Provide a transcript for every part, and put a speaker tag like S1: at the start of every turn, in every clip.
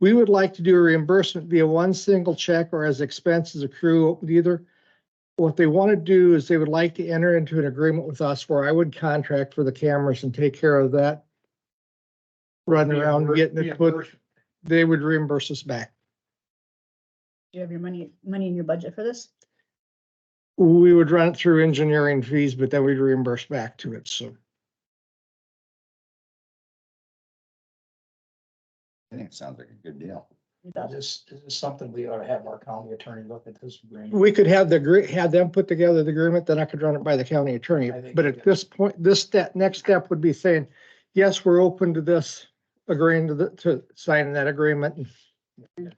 S1: We would like to do a reimbursement via one single check or as expenses accrue with either. What they want to do is they would like to enter into an agreement with us where I would contract for the cameras and take care of that. Running around getting it put, they would reimburse us back.
S2: Do you have your money, money in your budget for this?
S1: We would run it through engineering fees, but then we'd reimburse back to it, so.
S3: I think it sounds like a good deal.
S2: You got it.
S4: This, this is something we ought to have our county attorney look at this agreement.
S1: We could have the, agree- have them put together the agreement, then I could run it by the county attorney.
S4: I think-
S1: But at this point, this step, next step would be saying, yes, we're open to this, agreeing to the, to signing that agreement and
S4: Get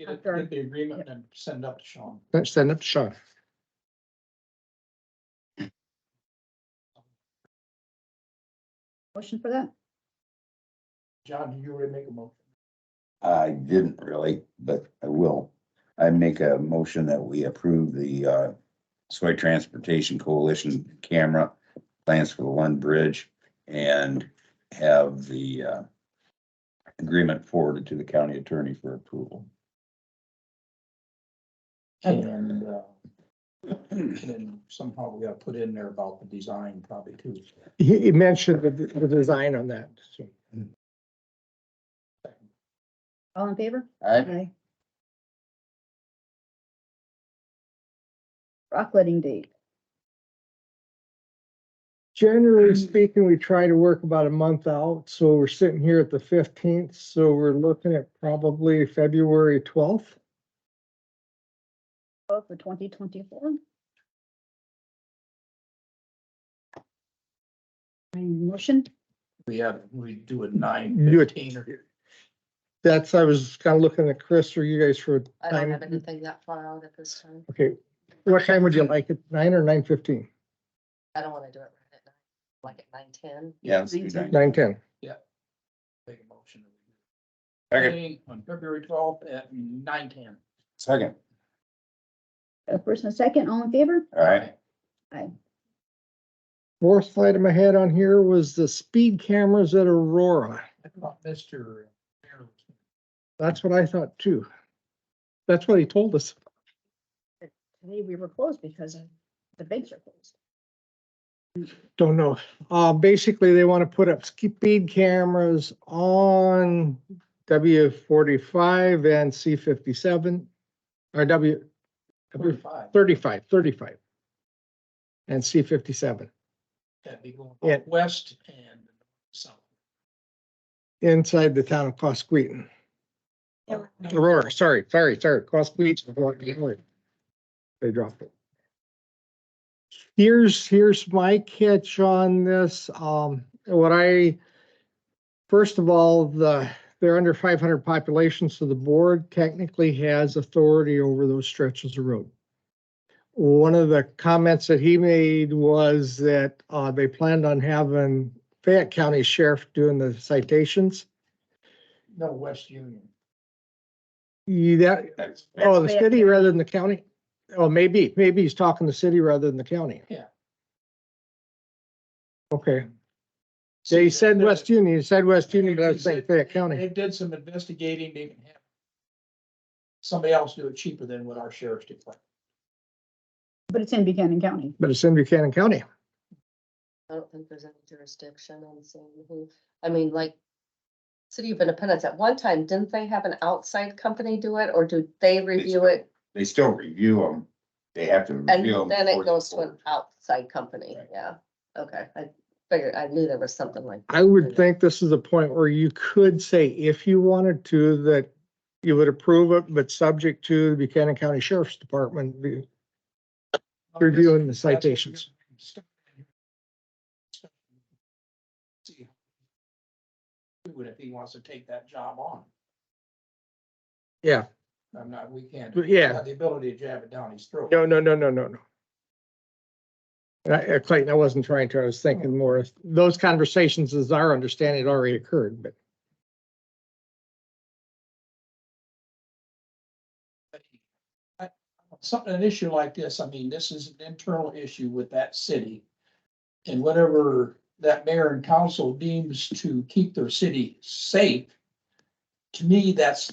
S4: it-
S2: After-
S4: get the agreement and send it up to Sean.
S1: then send it to Sean.
S2: Motion for that?
S4: John, you already make a motion.
S3: I didn't really, but I will. I make a motion that we approve the uh Soy Transportation Coalition camera plans for the Lund Bridge and have the uh agreement forwarded to the county attorney for approval.
S4: And, uh, and somehow we gotta put in there about the design probably too.
S1: He, he mentioned the, the design on that, so.
S2: All in favor?
S3: I
S2: Aye. Rock letting date.
S1: Generally speaking, we try to work about a month out, so we're sitting here at the fifteenth, so we're looking at probably February twelfth.
S2: Oh, for twenty twenty-four. motion,
S4: We have, we do a nine
S1: You would-
S4: fifteen or
S1: That's, I was kind of looking at Chris or you guys for
S5: I don't have
S1: time.
S5: anything that far out at this time.
S1: Okay, what time would you like it? Nine or nine fifteen?
S5: I don't wanna do it right at nine, like at nine ten.
S3: Yeah.
S1: Nine ten.
S4: make a motion.
S3: Second,
S4: On February twelfth at nine ten.
S3: second,
S2: a first and a second, all in favor?
S3: all right.
S1: Fourth item I had on here was the speed cameras at Aurora.
S4: I thought Mr. Mayor was-
S1: That's what I thought too. That's what he told us.
S2: Today we were closed because of the banks are closed.
S1: Don't know. Uh, basically, they want to put up speed cameras on W forty-five and C fifty-seven. Or W, W
S4: Thirty-five,
S1: thirty-five, thirty-five. And C fifty-seven.
S4: that'd be going
S1: Yeah.
S4: west and south.
S1: inside the town of Cosqueaton.
S2: Yeah.
S1: Aurora, sorry, sorry, sorry, Cosqueaton. Aurora. They dropped it. Here's, here's my catch on this. Um, what I, first of all, the, they're under five hundred population, so the board technically has authority over those stretches of road. One of the comments that he made was that, uh, they planned on having Fayette County Sheriff doing the citations.
S4: No, West Union.
S1: You, that,
S3: That's-
S1: oh, the
S2: Fayette
S1: city
S2: County.
S1: rather than the county? Oh, maybe, maybe he's talking the city rather than the county.
S4: Yeah.
S1: Okay, they said
S4: They-
S1: West Union, you said West Union, but I
S4: They
S1: was saying
S4: said-
S1: Fayette County.
S4: They did some investigating, they can have somebody else do it cheaper than what our sheriff's department.
S2: But it's in Buchanan County.
S1: But it's in Buchanan County.
S5: I don't think there's any jurisdiction on seeing who, I mean, like. City of Independence, at one time, didn't they have an outside company do it, or do they review it?
S3: They still review them. They have to review them.
S5: And then
S3: before
S5: it
S3: they
S5: goes to an
S3: forward.
S5: outside company,
S3: Right.
S5: yeah, okay, I figured, I knew there was something like.
S1: I would think this is a point where you could say, if you wanted to, that you would approve it, but subject to the Buchanan County Sheriff's Department be- reviewing the citations.
S4: See. Do it if he wants to take that job on.
S1: Yeah.
S4: I'm not, we can't.
S1: But yeah.
S4: we have The ability to jab it down his throat.
S1: No, no, no, no, no, no. And I- uh, Clayton, I wasn't trying to, I was thinking more, of- those conversations, as our understanding, had already occurred, but
S4: something, an issue like this, I mean, this is an internal issue with that city. And whatever that mayor and council deems to keep their city safe, to me, that's